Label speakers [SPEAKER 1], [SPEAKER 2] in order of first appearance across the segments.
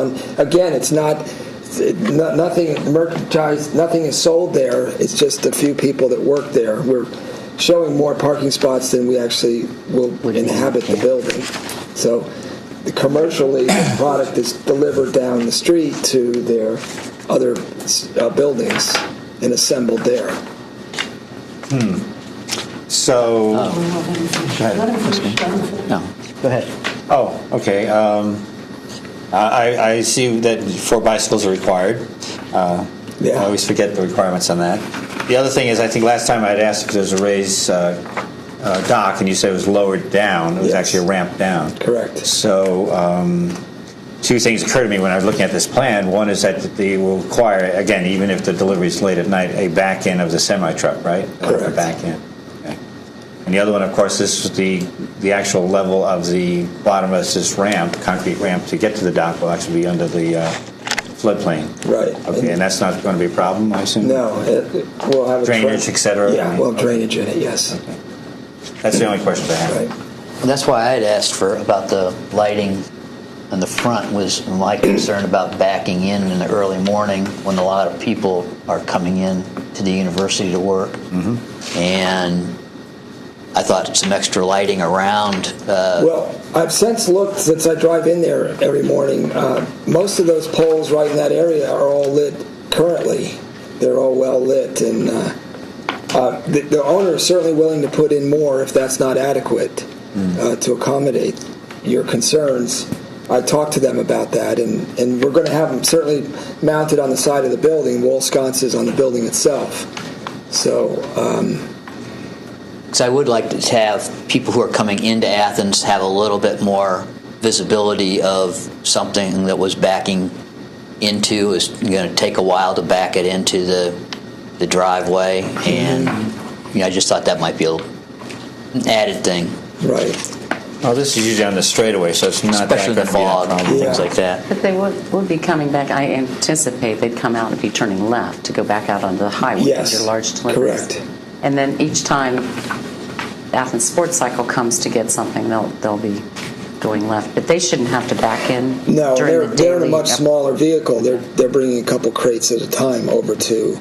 [SPEAKER 1] And again, it's not, no- nothing merchandise, nothing is sold there, it's just a few people that work there. We're showing more parking spots than we actually will
[SPEAKER 2] Would be,
[SPEAKER 1] inhabit the
[SPEAKER 2] yeah.
[SPEAKER 1] building. So commercially, the product is delivered down the street to their other uh, buildings and assembled there.
[SPEAKER 3] So,
[SPEAKER 4] Let him finish, let him finish.
[SPEAKER 2] No, go ahead.
[SPEAKER 3] oh, okay. Um, I, I see that four bicycles are required. Uh,
[SPEAKER 1] Yeah.
[SPEAKER 3] I always forget the requirements on that. The other thing is, I think last time I'd asked if there's a raised uh, uh, dock, and you said it was lowered down. It was
[SPEAKER 1] Yes.
[SPEAKER 3] actually a ramp down.
[SPEAKER 1] Correct.
[SPEAKER 3] So, um, two things occur to me when I was looking at this plan. One is that they will require, again, even if the delivery is late at night, a back end of the semi truck, right? A
[SPEAKER 1] Correct.
[SPEAKER 3] back end. Okay. And the other one, of course, this is the the actual level of the bottom of this ramp, concrete ramp, to get to the dock will actually be under the uh, floodplain.
[SPEAKER 1] Right.
[SPEAKER 3] Okay, and that's not going to be a problem, I assume.
[SPEAKER 1] No, it- it- we'll have a. tra-
[SPEAKER 3] Drainage, et cetera.
[SPEAKER 1] Yeah, well, drainage in it, yes.
[SPEAKER 3] That's the only question I have.
[SPEAKER 1] Right.
[SPEAKER 2] And that's why I had asked for, about the lighting on the front was my concern about backing in in the early morning when a lot of people are coming in to the university to work. And I thought some extra lighting around, uh,
[SPEAKER 1] Well, I've since looked since I drive in there every morning. Uh, most of those poles right in that area are all lit currently. They're all well lit, and uh, uh, the, the owner is certainly willing to put in more if that's not adequate uh, to accommodate your concerns. I talked to them about that, and, and we're going to have them certainly mounted on the side of the building, wall sconces on the building itself. So, um,
[SPEAKER 2] Because I would like to have people who are coming into Athens have a little bit more visibility of something that was backing into is going to take a while to back it into the the driveway, and you know I just thought that might be a, an added thing,
[SPEAKER 1] right.
[SPEAKER 3] Well, this is usually on the straightaway, so it's not
[SPEAKER 2] especially in
[SPEAKER 3] that gonna
[SPEAKER 2] the
[SPEAKER 3] be that
[SPEAKER 2] fog and
[SPEAKER 3] problem.
[SPEAKER 2] things like that.
[SPEAKER 5] But they would, would be coming back, I anticipate they'd come out and be turning left to go back out onto the highway. with
[SPEAKER 1] Yes,
[SPEAKER 5] Your large deliveries.
[SPEAKER 1] correct.
[SPEAKER 5] And then each time Athens Sports Cycle comes to get something, they'll, they'll be going left. But they shouldn't have to back in
[SPEAKER 1] No,
[SPEAKER 5] during
[SPEAKER 1] they're,
[SPEAKER 5] the
[SPEAKER 1] they're in a
[SPEAKER 5] daily
[SPEAKER 1] much
[SPEAKER 5] up-
[SPEAKER 1] smaller vehicle. They're, they're bringing a couple crates at a time over to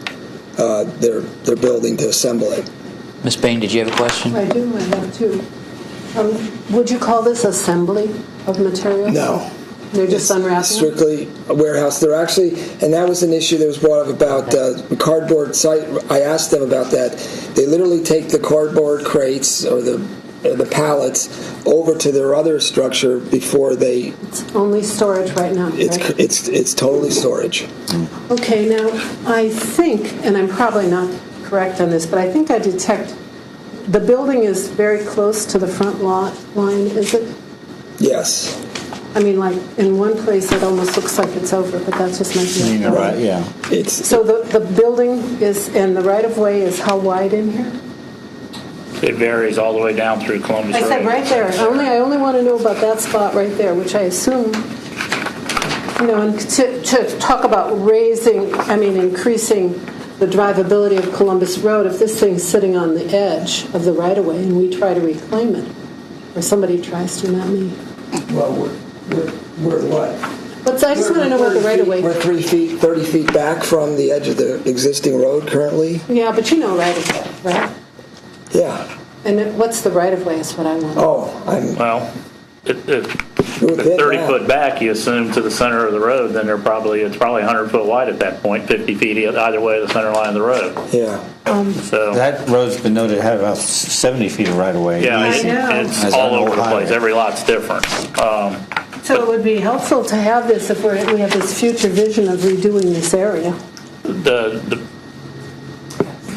[SPEAKER 1] uh, their, their building to assemble it.
[SPEAKER 2] Miss Bain, did you have a question?
[SPEAKER 4] I do, I have two. Um, Would you call this assembly of materials?
[SPEAKER 1] No.
[SPEAKER 4] They're just unwrapping? them?
[SPEAKER 1] Strictly a warehouse. They're actually, and that was an issue that was brought up about uh, cardboard site. I asked them about that. They literally take the cardboard crates or the, or the pallets over to their other structure before they,
[SPEAKER 4] It's Only storage right now,
[SPEAKER 1] it's,
[SPEAKER 4] right?
[SPEAKER 1] it's, it's totally storage.
[SPEAKER 4] Okay, now, I think, and I'm probably not correct on this, but I think I detect, the building is very close to the front lot line, is it?
[SPEAKER 1] Yes.
[SPEAKER 4] I mean, like, in one place, it almost looks like it's over, but that's just my
[SPEAKER 3] You know,
[SPEAKER 4] view.
[SPEAKER 3] right, yeah.
[SPEAKER 1] It's,
[SPEAKER 4] So the, the building is, and the right-of-way is how wide in here?
[SPEAKER 6] It varies all the way down through Columbus
[SPEAKER 4] I
[SPEAKER 6] Road.
[SPEAKER 4] said right there, only, I only want to know about that spot right there, which I assume, you know, and to, to talk about raising, I mean, increasing the drivability of Columbus Road, if this thing's sitting on the edge of the right-of-way and we try to reclaim it, or somebody tries to, not me.
[SPEAKER 1] well, we're, we're, we're what?
[SPEAKER 4] But I just want to know about the
[SPEAKER 1] We're
[SPEAKER 4] right-of-way.
[SPEAKER 1] three feet, 30 feet back from the edge of the existing road currently.
[SPEAKER 4] Yeah, but you know right-of-way, right?
[SPEAKER 1] Yeah.
[SPEAKER 4] And it- what's the right-of-way is what I want.
[SPEAKER 1] Oh, I'm
[SPEAKER 6] Well, it, it,
[SPEAKER 1] We'll
[SPEAKER 6] at
[SPEAKER 1] hit
[SPEAKER 6] 30
[SPEAKER 1] that.
[SPEAKER 6] foot back, you assume to the center of the road, then they're probably, it's probably 100 foot wide at that point, 50 feet e, either way of the center line of the road.
[SPEAKER 1] yeah.
[SPEAKER 6] So,
[SPEAKER 3] That road's been noted to have about 70 feet of right of way.
[SPEAKER 6] yeah,
[SPEAKER 4] I know.
[SPEAKER 6] it's
[SPEAKER 3] As
[SPEAKER 6] it's all
[SPEAKER 3] on
[SPEAKER 6] over the
[SPEAKER 3] Ohio.
[SPEAKER 6] place. Every lot's different. Um,
[SPEAKER 4] So it would be helpful to have this if we're, we have this future vision of redoing this area.
[SPEAKER 6] The, the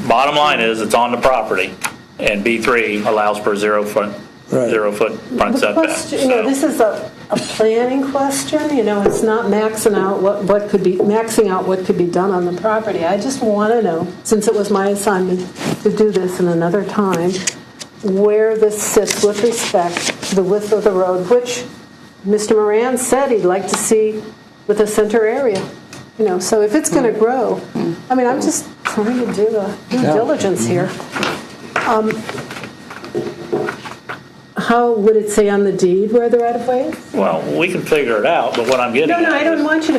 [SPEAKER 6] bottom line is, it's on the property, and B3 allows for zero foot,
[SPEAKER 1] Right.
[SPEAKER 6] zero foot front
[SPEAKER 4] The
[SPEAKER 6] setback.
[SPEAKER 4] question, you know,
[SPEAKER 6] So-
[SPEAKER 4] this is a, a planning question, you know, it's not maxing out what, what could be, maxing out what could be done on the property. I just want to know, since it was my assignment to do this in another time, where this sits with respect to the width of the road, which Mr. Moran said he'd like to see with a center area. You know, so if it's going to grow, I mean, I'm just trying to do a due diligence here. how would it say on the deed where the right-of-way is?
[SPEAKER 6] Well, we can figure it out, but what I'm getting
[SPEAKER 4] No, no,
[SPEAKER 6] at
[SPEAKER 4] I
[SPEAKER 6] is-
[SPEAKER 4] don't want you to